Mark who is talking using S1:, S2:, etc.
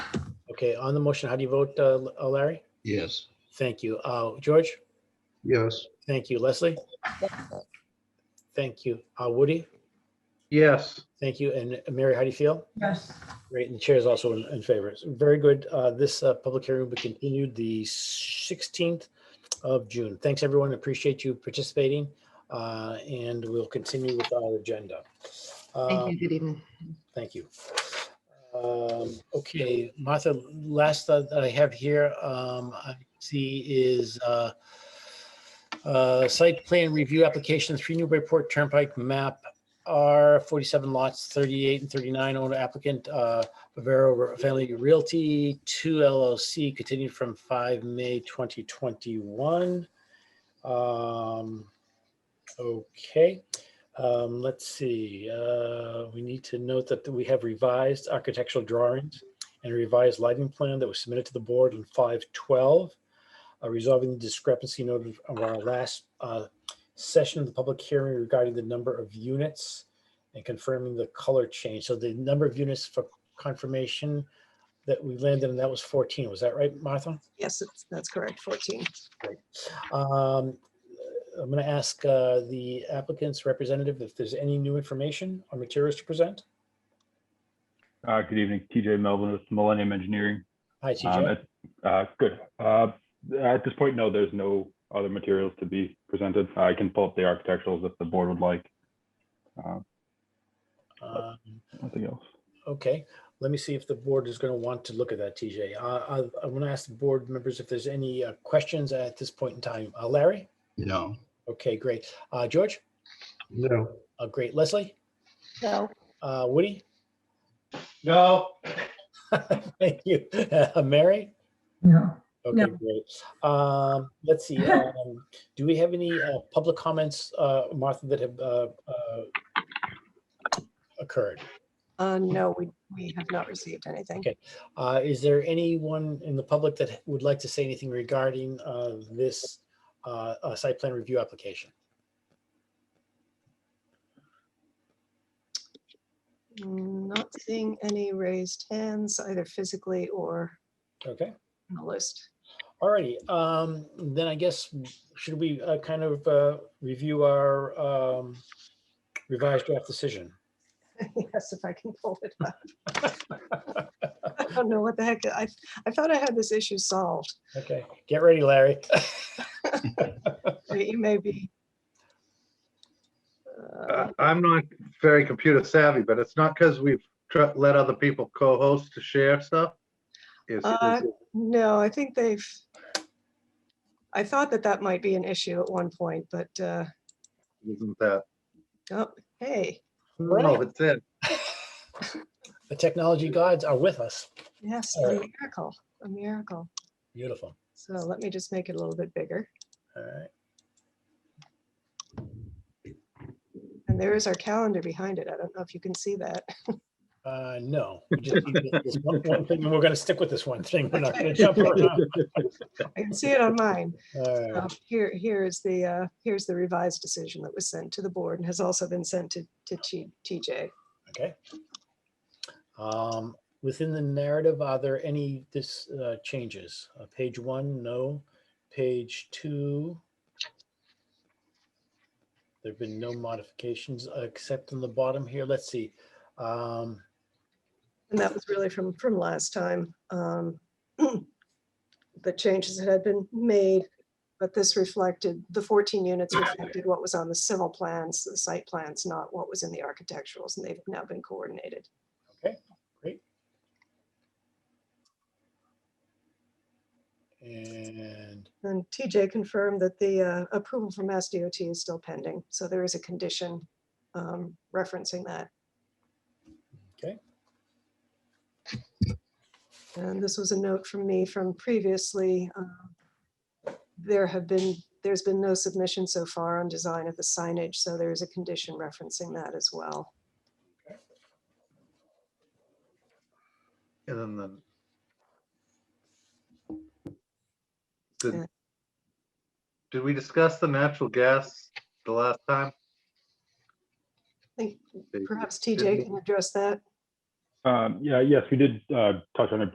S1: Okay, on the motion, how do you vote, uh, L- uh, Larry?
S2: Yes.
S1: Thank you. Uh, George?
S2: Yes.
S1: Thank you. Leslie? Thank you. Uh, Woody?
S2: Yes.
S1: Thank you. And uh, Mary, how do you feel?
S3: Yes.
S1: Great. And the chair is also in, in favor. So Very good. Uh, this, uh, public hearing will be continued the sixteenth of June. Thanks, everyone. Appreciate you participating. Uh, and we'll continue with our agenda.
S4: Thank
S1: Um,
S4: you. Good evening.
S1: Thank you. Um, Okay, Martha, last that I have here, um, I see is uh, uh, site plan review application, three Newburyport Turnpike map, R forty-seven lots, thirty-eight and thirty-nine owner applicant, uh, Bavaro Family Realty, two LLC, continued from five May twenty twenty-one. Um, Okay. Um, let's see, uh, we need to note that we have revised architectural drawings and revised lighting plan that was submitted to the board on five twelve. Uh, resolving the discrepancy noted of our last, uh, session of the public hearing regarding the number of units and confirming the color change. So the number of units for confirmation that we landed, and that was fourteen, was that right, Martha?
S5: Yes, it's- that's correct, 14.
S1: Um, I'm going to ask uh, the applicant's representative if there's any new information or materials to present.
S6: Uh, Good evening, TJ Melvin with Millennium Engineering.
S1: Hi,
S6: Um,
S1: TJ.
S6: at- uh, Good. Uh, At this point, no, there's no other materials to be presented. I can pull up the architecturals if the board would like. Uh,
S1: Um,
S6: Nothing else.
S1: Okay, let me see if the board is going to want to look at that, TJ. Uh, I- I'm going to ask the board members if there's any uh, questions at this point in time. Uh, Larry?
S2: No.
S1: Okay, great. Uh, George?
S2: No.
S1: Uh, Great. Leslie?
S5: No.
S1: Uh, Woody?
S2: No.
S1: Thank you. Uh, Mary?
S3: No.
S1: Okay,
S3: No.
S1: great. Um, let's see, um, do we have any, uh, public comments, uh, Martha, that have, uh, uh, occurred?
S5: Uh, no, we, we have not received anything.
S1: Okay. Uh, is there anyone in the public that would like to say anything regarding, uh, this, uh, uh, site plan review application?
S5: Not seeing any raised hands either physically or
S1: Okay,
S5: on the list.
S1: alrighty, um, then I guess, should we, uh, kind of, uh, review our, um, revised draft decision?
S5: Yes, if I can pull it up. I don't know what the heck, I, I thought I had this issue solved.
S1: Okay, get ready, Larry.
S5: You may be. Uh,
S2: I'm not very computer savvy, but it's not because we've tr- let other people co-host to share stuff. It's-
S5: Uh,
S2: it's-
S5: No, I think they've, I thought that that might be an issue at one point, but, uh,
S2: Isn't that?
S5: oh, hey,
S2: No, but then,
S1: The technology gods are with us.
S5: yes,
S1: All
S5: a
S1: right.
S5: miracle, a miracle.
S1: Beautiful.
S5: So let me just make it a little bit bigger.
S1: All right.
S5: And there is our calendar behind it. I don't know if you can see that.
S1: Uh, no. we just keep it- this one- one thing, and We're going to stick with this one thing. We're not going to jump around. Uh,
S5: I can see it on mine.
S1: All
S5: Um,
S1: right.
S5: Here, here is the, uh, here's the revised decision that was sent to the board and has also been sent to, to T- TJ.
S1: Okay. Um, Within the narrative, are there any this uh, changes? Uh, Page one, no. Page two. There've been no modifications uh, except on the bottom here. Let's see. Um,
S5: And that was really from, from last time. um, The changes that had been made, but this reflected, the 14 units reflected what was on the civil plans, the site plans, not what was in the architecturals, and they've now been coordinated.
S1: And
S5: And TJ confirmed that the uh, approval from Mass DOT is still pending, so there is a condition um, referencing that.
S1: Okay.
S5: And this was a note from me from previously. um, There have been, there's been no submission so far on design of the signage, so there is a condition referencing that as well.
S2: and then the. Did-
S5: Yeah.
S2: Did we discuss the natural gas the last time?
S5: I think
S2: They-
S5: perhaps TJ can address that.
S6: Um, Yeah, yes, we did uh, touch on it